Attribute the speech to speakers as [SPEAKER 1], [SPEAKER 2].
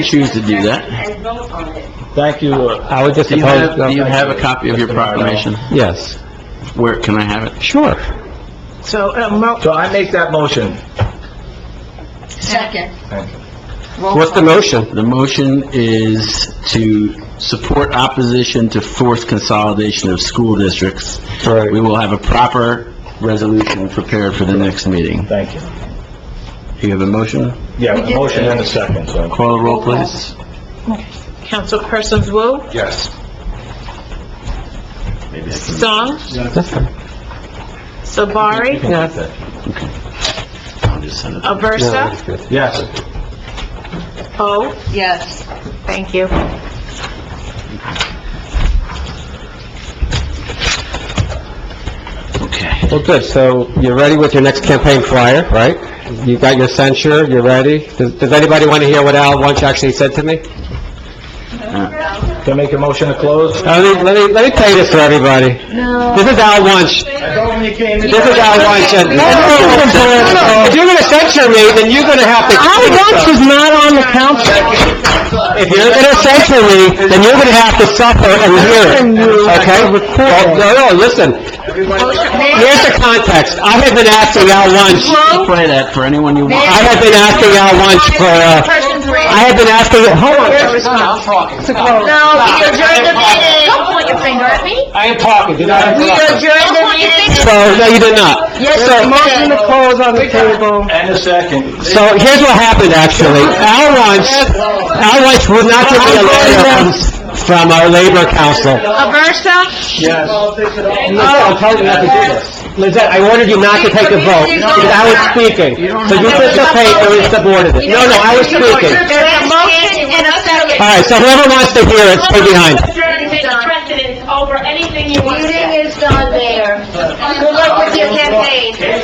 [SPEAKER 1] choose to do that.
[SPEAKER 2] and vote on it.
[SPEAKER 3] Thank you. uh,
[SPEAKER 4] I would just
[SPEAKER 1] Do you
[SPEAKER 4] oppose...
[SPEAKER 1] have, do you have a copy of your proclamation?
[SPEAKER 4] Yes,
[SPEAKER 1] Where, can I have it?
[SPEAKER 4] sure.
[SPEAKER 5] So, uh, mo-
[SPEAKER 3] So I make that motion.
[SPEAKER 2] Second.
[SPEAKER 3] Thank you.
[SPEAKER 2] Roll
[SPEAKER 4] What's the
[SPEAKER 2] call.
[SPEAKER 4] motion?
[SPEAKER 1] The motion is to support opposition to forced consolidation of school districts.
[SPEAKER 4] Right.
[SPEAKER 1] We will have a proper resolution prepared for the next meeting.
[SPEAKER 3] Thank you.
[SPEAKER 1] Do you have a motion?
[SPEAKER 3] Yeah, a motion and a second, so.
[SPEAKER 1] Call the roll, please.
[SPEAKER 5] Councilpersons Wu,
[SPEAKER 3] Yes.
[SPEAKER 5] Song,
[SPEAKER 4] That's fine.
[SPEAKER 5] Sabari,
[SPEAKER 1] I'll just send it.
[SPEAKER 4] No,
[SPEAKER 5] Aversa,
[SPEAKER 4] that's good.
[SPEAKER 3] Yes.
[SPEAKER 5] O.
[SPEAKER 2] Yes.
[SPEAKER 5] Thank you.
[SPEAKER 1] Okay.
[SPEAKER 4] Well, good, so you're ready with your next campaign flyer, right? You got your censure, you're ready. Does does anybody want to hear what Al Wunsch actually said to me?
[SPEAKER 3] Can I make a motion to close?
[SPEAKER 4] Uh, Let me, let me, let me play this for everybody.
[SPEAKER 2] No.
[SPEAKER 4] This is Al Wunsch.
[SPEAKER 3] I told you came
[SPEAKER 4] This is Al Wunsch, and... If you're gonna censure me, then you're gonna have to... Al Wunsch is not on the council. If you're gonna censure me, then you're gonna have to suffer and hear it, okay? Well, No, no, listen, here's the context. I have been asking Al Wunsch,
[SPEAKER 1] Play that for anyone you want.
[SPEAKER 4] I have been asking Al Wunsch for, uh,
[SPEAKER 2] Persons Wu.
[SPEAKER 4] I have been asking, hold on.
[SPEAKER 2] No, we adjourn the meeting. Don't point your finger at me.
[SPEAKER 4] I am talking, did I
[SPEAKER 2] We adjourn the meeting.
[SPEAKER 4] So, no, you did not.
[SPEAKER 2] Yes,
[SPEAKER 4] So-
[SPEAKER 2] you did. Motion to
[SPEAKER 4] on the table.
[SPEAKER 3] And a second.
[SPEAKER 4] So here's what happened, actually. Al Wunsch, Al Wunsch would not give me a letter from, from our labor council.
[SPEAKER 5] Aversa,
[SPEAKER 3] Yes.
[SPEAKER 4] Lizette, I'm telling you not to do this. Lizette, I ordered you not to take the vote, because I was speaking. So you participate, or it's the board of it. No, no, I was speaking.
[SPEAKER 2] There's a motion and a second.
[SPEAKER 4] All right, so whoever wants to hear it, stay behind.
[SPEAKER 2] Adjourn is done.
[SPEAKER 6] precedence over anything you want to say.
[SPEAKER 2] Meeting is done there. Good luck with your campaign.